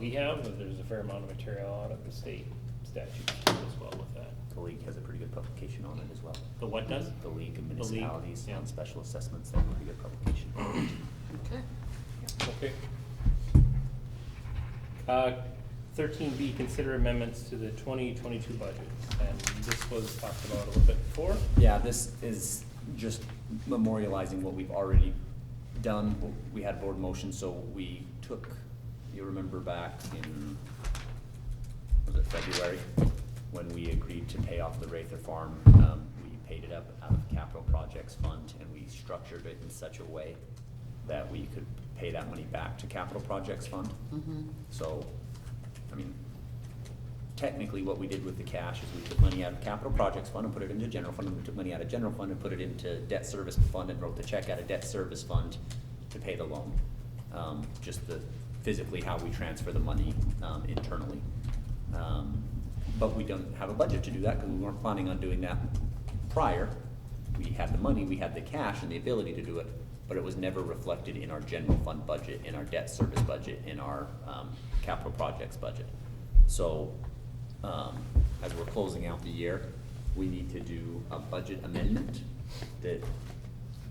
we have, but there's a fair amount of material out of the state statute as well with that. The league has a pretty good publication on it as well. The what does? The League of The League, Municipalities yeah. on Special Assessments, they have a pretty good publication. Okay. Okay. Uh, Thirteen B, consider amendments to the twenty twenty-two budget, and this was talked about a little bit before. Yeah, this is just memorializing what we've already done. We had board motion, so we took, you remember back in, was it February? When we agreed to pay off the Rather Farm, um, we paid it up out of capital projects fund and we structured it in such a way that we could pay that money back to capital projects fund. Mm-hmm. So, I mean, technically what we did with the cash is we took money out of capital projects fund and put it into general fund, and we took money out of general fund and put it into debt service fund and wrote the check out of debt service fund to pay the loan. Um, just the, physically how we transfer the money, um, internally. Um, But we don't have a budget to do that, cause we weren't planning on doing that prior. We had the money, we had the cash and the ability to do it, but it was never reflected in our general fund budget, in our debt service budget, in our, um, capital projects budget. So, um, as we're closing out the year, we need to do a budget amendment that,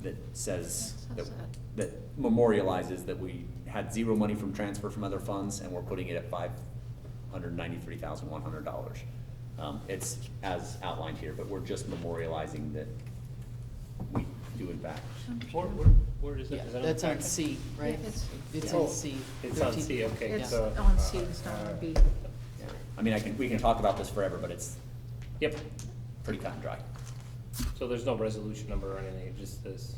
that says, That that, says that memorializes that we had zero money from transfer from other funds and we're putting it at five hundred ninety-three thousand one hundred dollars. Um, it's as outlined here, but we're just memorializing that we do in fact. Where, where- where is it? Yeah, Is that on the that's on packet? C, right? Yeah, it's- It's Oh, on C. It's on 13. C, okay, Yeah. It's so. Oh, uh, on C, it's not on B. I mean, I can, we can talk about this forever, but it's Yep, pretty cut and dry. so there's no resolution number or anything, it's just this,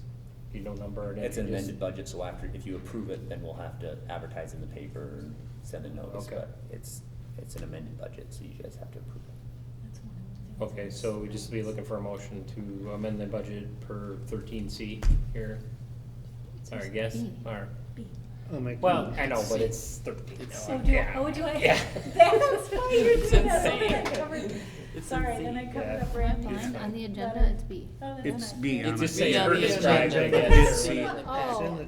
you know, number and. It's an just- amended budget, so after, if you approve it, then we'll have to advertise in the paper and send a notice, Okay. but it's, it's an amended budget, so you guys have to approve it. Okay, so we just be looking for a motion to amend the budget per thirteen C here, or I guess, or, B. well, I know, but it's thirteen. It's- no, Oh, do I, yeah, oh, do I? Yeah. That's why you're It's doing that, something insane. I covered. It's Sorry, then I insane. covered Yeah. Right, up red fine. line. On the agenda, it's B. Oh, then It's I'm not- B It on just it. says Yeah, her the described, I agenda. guess. or It's whatever. Oh. I'm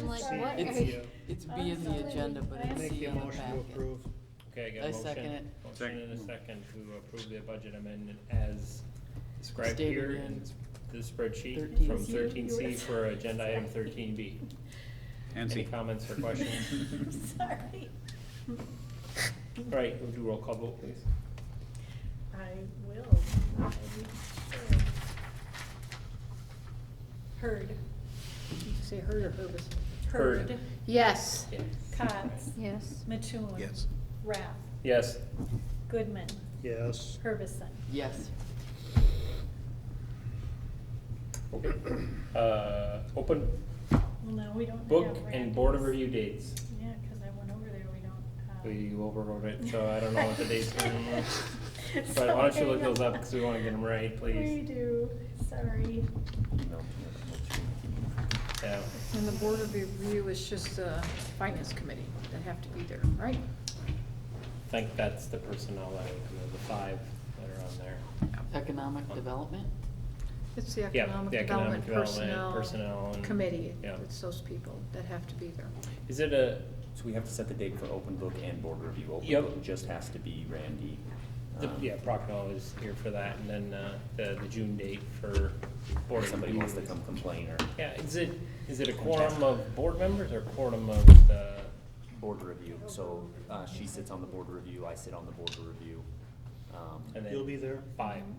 I'm like, sorry. what It's- are you? It's B in the Absolutely. agenda, but it's Make C on the packet. Okay, I got a I motion. second it. Motion and a second to approve the budget amendment as described Stated here in in the spreadsheet 13C. from thirteen C for agenda item thirteen B. And Any C. comments or questions? I'm sorry. All right, we'll do roll call vote, please. I will. I will. Heard. Did you say her or Herbis? Heard. Heard. Yes. Yes. Cots. Yes. Mattoon. Yes. Rath. Yes, Goodman. Yes. Herbison. Yes. okay. Uh, open Well, no, we don't have. book and board of Randall's. review dates. Yeah, cause I went over there, we don't uh, have. You overrode it, so I don't know what the dates are anymore. But why don't you look those up, because we want to get them right, We please. do, sorry. No, no, no. Yeah. And the board of review is just the finance committee that have to be there, right? I think that's the personnel that, the five that are on there. Economic development? It's the Yeah, economic the economic development development, personnel personnel. and- committee. Yeah. It's those people that have to be there. Is it a, So we have to set the date for open book and board review. Open Yep. book just has to be Randy. the- um, yeah, Procnol is here for that, and then uh, the, the June date for board Or somebody review wants to is- come complain or Yeah, is it, is it a quorum of board members or quorum of the, board review. So uh, she sits on the board review, I sit on the board review. Um, and then? You'll be there. Five. Um,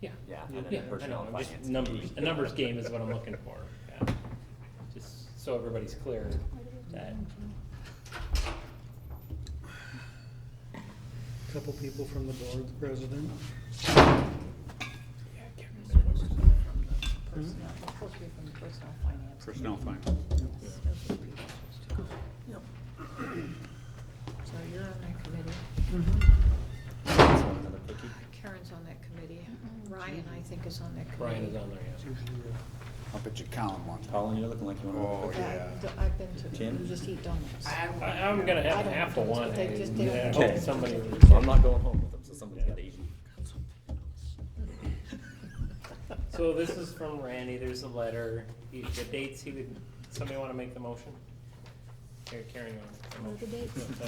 Yeah. Yeah, and then Yeah, I personnel know, and I'm just- finance. Numbers, a numbers game is what I'm looking for, yeah. Just so everybody's clear that, Couple people from the board, the president. Supposed to be from the personnel finance. Personnel fine. Yep. So you're on that committee. Mm-hmm. Does someone another cookie? Karen's on that committee. Ryan, I think, is on that committee. Brian is on there, yeah. I'll bet you Colin wants it. Colin, you're looking like you Oh, want to. yeah. I've- I've been to, Tim? just eat donuts. I, I'm gonna I have don't half a know, one, they just didn't- and I Okay. hope Oh, somebody. So I'm not going home with them, so somebody's got to eat. So this is from Randy, there's a letter, He- the dates he would, somebody wanna make the motion? Here, Karen, you wanna make the What are the motion? dates? Uh,